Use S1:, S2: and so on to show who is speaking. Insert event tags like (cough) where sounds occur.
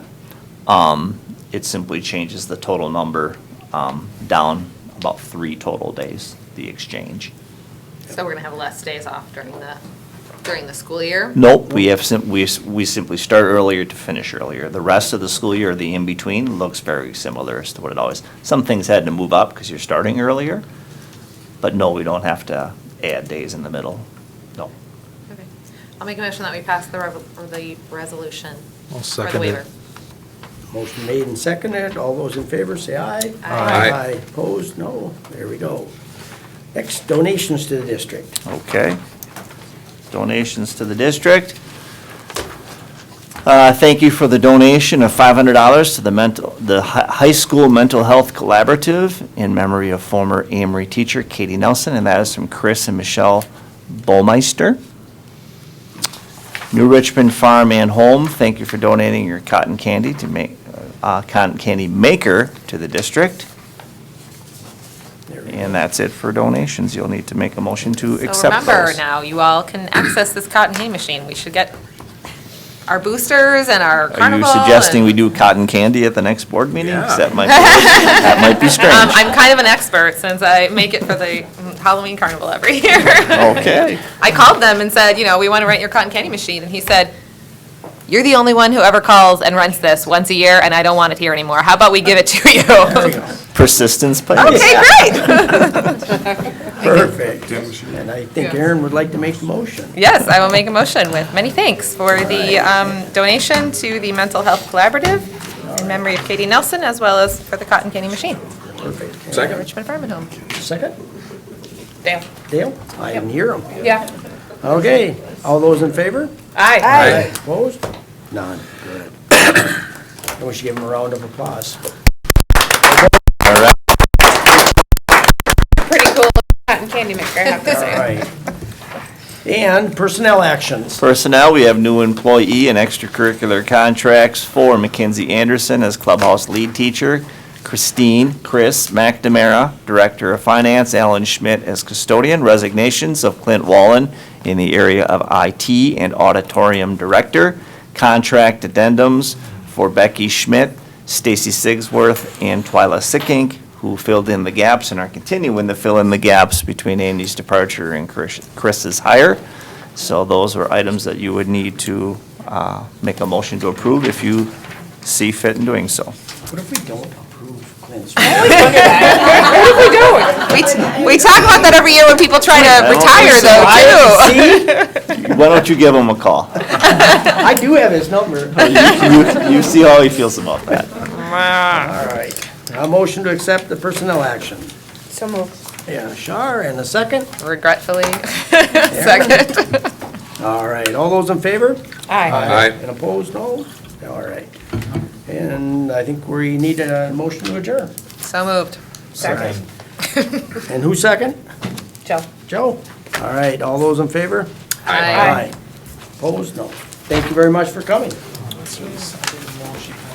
S1: Um, It simply changes the total number um, down about three total days, the exchange.
S2: So we're gonna have less days off during the, during the school year?
S1: Nope, we have, sim- we s- we simply start earlier to finish earlier. The rest of the school year, the in-between, looks very similar as to what it always, some things had to move up because you're starting earlier, but no, we don't have to add days in the middle, no.
S2: Okay. I'll make a motion that we pass the, rev- or the resolution.
S3: I'll
S2: For the
S3: second it.
S2: waiver.
S4: Motion made and seconded. All those in favor say aye.
S2: Aye.
S3: Aye.
S4: Opposed? No. There we go. Next, donations to the district.
S1: Okay. Donations to the district. Uh, Thank you for the donation of $500 to the mental, the hi- High School Mental Health Collaborative in memory of former Amory teacher Katie Nelson, and that is from Chris and Michelle Bolmeister. New Richmond Farm and Home, thank you for donating your cotton candy to make, uh, cotton candy maker to the district.
S4: There we go.
S1: And that's it for donations. You'll need to make a motion to
S2: So
S1: accept those.
S2: remember now, you all can access this cotton candy machine. We should get our boosters and our
S1: Are you
S2: carnival.
S1: suggesting we
S2: and- Um,
S1: do cotton candy at the next board meeting? 'Cause
S4: Yeah.
S1: that might, be- that might be
S2: Um, (laughs)
S1: strange.
S2: I'm kind of an expert since I make it for the mm, Halloween carnival every (laughs) year.
S1: Okay.
S2: I called them and said, you know, we want to rent your cotton candy machine, and he said, you're the only one who ever calls and rents this once a year, and I don't want it here anymore. How about we give it to you?
S1: Persistence pays.
S2: Okay, great.
S4: Perfect. And I think Aaron would like to make the motion.
S2: Yes, I will make a motion with many thanks for the um, donation to the Mental Health Collaborative in memory of Katie Nelson, as well as for the cotton candy machine.
S4: Perfect.
S2: Second. Richmond Farm and Home.
S4: Second?
S2: Damn.
S4: Dale? I didn't hear him.
S2: Yeah.
S4: Okay. All those in favor?
S2: Aye.
S4: Opposed? None. Good. And we should give him a round of applause.
S2: Pretty cool cotton candy maker, I have to
S4: All right. And personnel actions.
S1: Personnel, we have new employee and extracurricular contracts for Mackenzie Anderson as clubhouse lead teacher, Christine, Chris McNamara, Director of Finance, Alan Schmidt as custodian, resignations of Clint Wallen in the area of IT and auditorium director, contract addendums for Becky Schmidt, Stacy Sigsworth, and Twyla Sickink, who filled in the gaps and are continuing to fill in the gaps between Andy's departure and Chris- Chris's hire. So those are items that you would need to uh, make a motion to approve if you see fit in doing so.
S4: What if we don't approve (laughs) Clint's?
S2: We we talk about that every year when people try to
S1: don't think
S2: retire,
S1: so.
S2: though, too.
S1: Why don't you give him a call?
S4: I do have his number. All
S1: You- You you see how he feels about that.
S4: right. A motion to accept the personnel action.
S2: So moved.
S4: Yeah, Shar, and a second.
S2: Regretfully, (laughs) second.
S4: All right, all those in favor?
S2: Aye.
S4: And opposed, no? All right. And I think we need a motion to adjourn.
S2: So moved.
S4: Second. And who's second?
S2: Joe.
S4: Joe? All right, all those in favor?
S2: Aye.
S4: Opposed, no. Thank you very much for coming.